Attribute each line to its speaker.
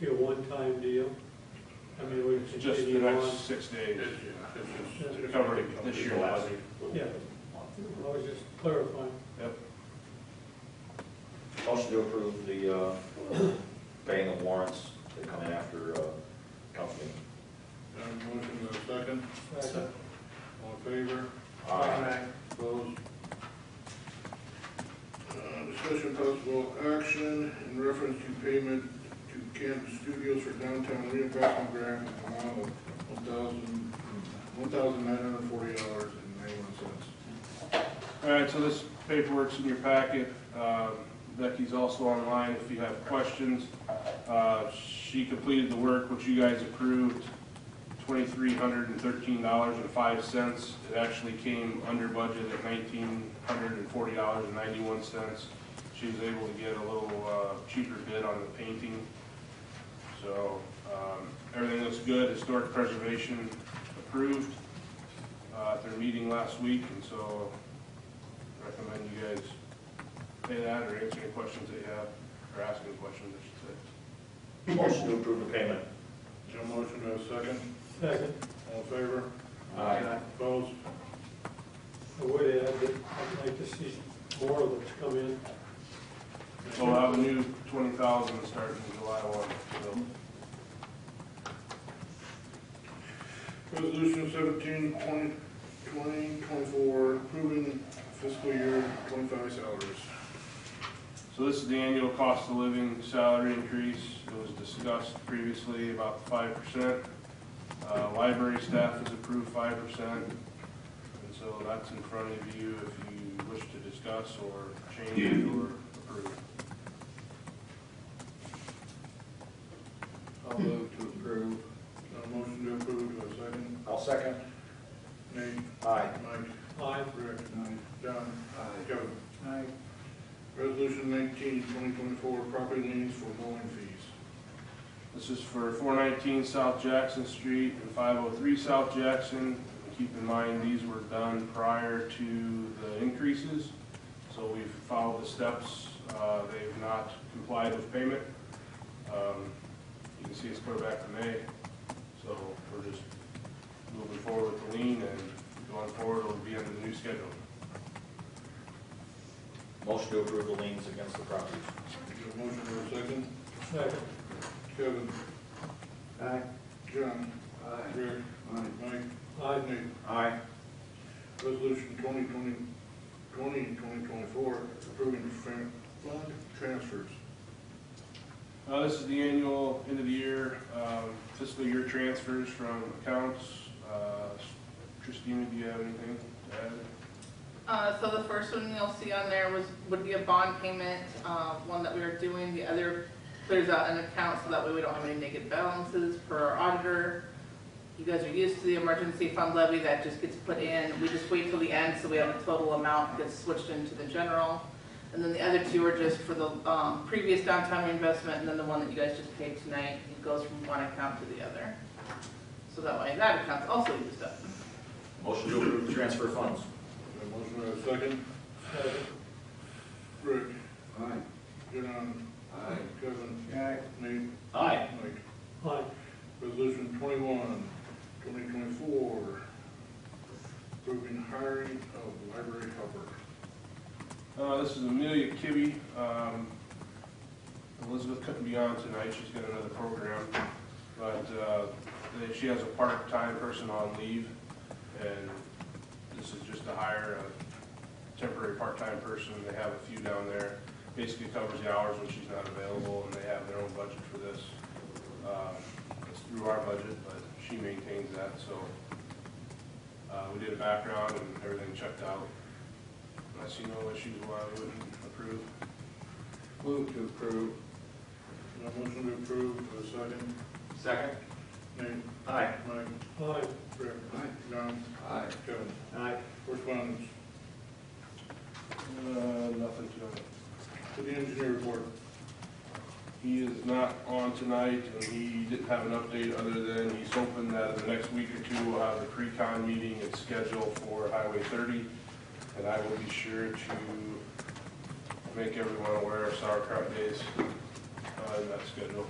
Speaker 1: be a one-time deal? I mean, we
Speaker 2: It's just the
Speaker 1: continue on?
Speaker 2: next six days,
Speaker 3: It's- it's just-
Speaker 2: to cover this year's budget.
Speaker 1: Yeah, I was just clarifying.
Speaker 2: Yep.
Speaker 4: Motion to approve the, uh, paying the warrants that come after, uh, company.
Speaker 3: Got a motion and a second,
Speaker 1: Second.
Speaker 3: all in favor,
Speaker 4: Aye.
Speaker 3: opposed? Uh, Discussion possible action in reference to payment to Camp Studios for downtown reinvestment grant in the amount of one thousand, one thousand nine hundred forty dollars and ninety-one cents.
Speaker 2: All right, so this paperwork's in your packet. Uh, Becky's also online if you have questions. Uh, She completed the work which you guys approved, twenty-three hundred and thirteen dollars and five cents. It actually came under budget at nineteen hundred and forty dollars and ninety-one cents. She was able to get a little uh, cheaper bid on the painting. So um, everything looks good. Historic preservation approved uh, at their meeting last week, and so recommend you guys pay that or answer any questions that you have, or ask any questions, I should say.
Speaker 4: Motion to approve the payment.
Speaker 3: Got a motion and a second,
Speaker 1: Second,
Speaker 3: all in favor,
Speaker 4: Aye.
Speaker 3: opposed?
Speaker 1: I would add that I'd like to see more of those come in.
Speaker 2: So we'll have a new twenty thousand starting July one, so.
Speaker 3: Resolution seventeen, twenty, twenty, twenty-four, approving fiscal year twenty-five salaries.
Speaker 2: So this is the annual cost of living salary increase. It was discussed previously about five percent. Uh, library staff has approved five percent. And so that's in front of you if you wish to discuss or change it or approve.
Speaker 5: I'll move to approve.
Speaker 3: Got a motion to approve, do I have a second?
Speaker 4: I'll second.
Speaker 3: Nate,
Speaker 4: Aye.
Speaker 3: Mike,
Speaker 1: Aye.
Speaker 3: Rick, John,
Speaker 5: Aye.
Speaker 3: Kevin. Resolution nineteen, twenty twenty-four, property liens for mowing fees.
Speaker 2: This is for four nineteen South Jackson Street and five oh three South Jackson. Keep in mind, these were done prior to the increases, so we've followed the steps. Uh, they've not complied with payment. Um, you can see it's clear back to May, so we're just moving forward with the lien and going forward, it'll be under the new schedule.
Speaker 4: Motion to approve the liens against the properties.
Speaker 3: Got a motion to a second,
Speaker 1: Second,
Speaker 3: Kevin,
Speaker 5: Aye.
Speaker 3: John,
Speaker 5: Aye.
Speaker 3: Rick,
Speaker 5: Aye.
Speaker 3: Mike,
Speaker 1: aye.
Speaker 3: Nate.
Speaker 4: Aye.
Speaker 3: Resolution 2020, 2024, approving fund transfers.
Speaker 2: Uh, this is the annual end of the year, um, fiscal year transfers from accounts. Uh, Christina, do you have anything to add?
Speaker 6: Uh, so the first one you'll see on there was, would be a bond payment, uh, one that we are doing, the other, there's a- an account so that way we don't have any negative balances per our auditor. You guys are used to the emergency fund levy that just gets put in, we just wait till the end so we have a total amount that's switched into the general. And then the other two are just for the, um, previous downtown reinvestment and then the one that you guys just paid tonight, it goes from one account to the other. So that way that account's also used up.
Speaker 4: Motion to approve the transfer of funds.
Speaker 3: Got a motion and a second.
Speaker 1: Second,
Speaker 3: Rick,
Speaker 5: Aye.
Speaker 3: John,
Speaker 5: Aye.
Speaker 3: Kevin,
Speaker 5: Aye.
Speaker 3: Nate,
Speaker 4: Aye.
Speaker 3: Mike.
Speaker 1: aye.
Speaker 3: Resolution 21, 2024, approving hiring of library helper.
Speaker 2: Uh, this is Amelia Kibbe. Um, Elizabeth couldn't be on tonight, she's got another program. But, uh, they- she has a part-time person on leave, and this is just to hire a temporary part-time person. They have a few down there. Basically covers the hours when she's not available, and they have their own budget for this. Um, It's through our budget, but she maintains that, so. Uh, we did a background and everything checked out. I see no issues why we wouldn't approve.
Speaker 5: Move to approve.
Speaker 3: Got a motion to approve, do I have a second.
Speaker 4: Second.
Speaker 3: Nate,
Speaker 4: Aye.
Speaker 3: Mike,
Speaker 1: Aye,
Speaker 3: Rick, John,
Speaker 5: Aye.
Speaker 3: Kevin.
Speaker 5: Aye.
Speaker 3: Correspondence
Speaker 2: Uh, nothing tonight.
Speaker 3: to the engineer report.
Speaker 2: He is not on tonight, and he didn't have an update other than he's hoping that in the next week or two, we'll have the pre-con meeting and schedule for Highway thirty. And I will be sure to make everyone aware of sauerkraut days, uh, in that schedule.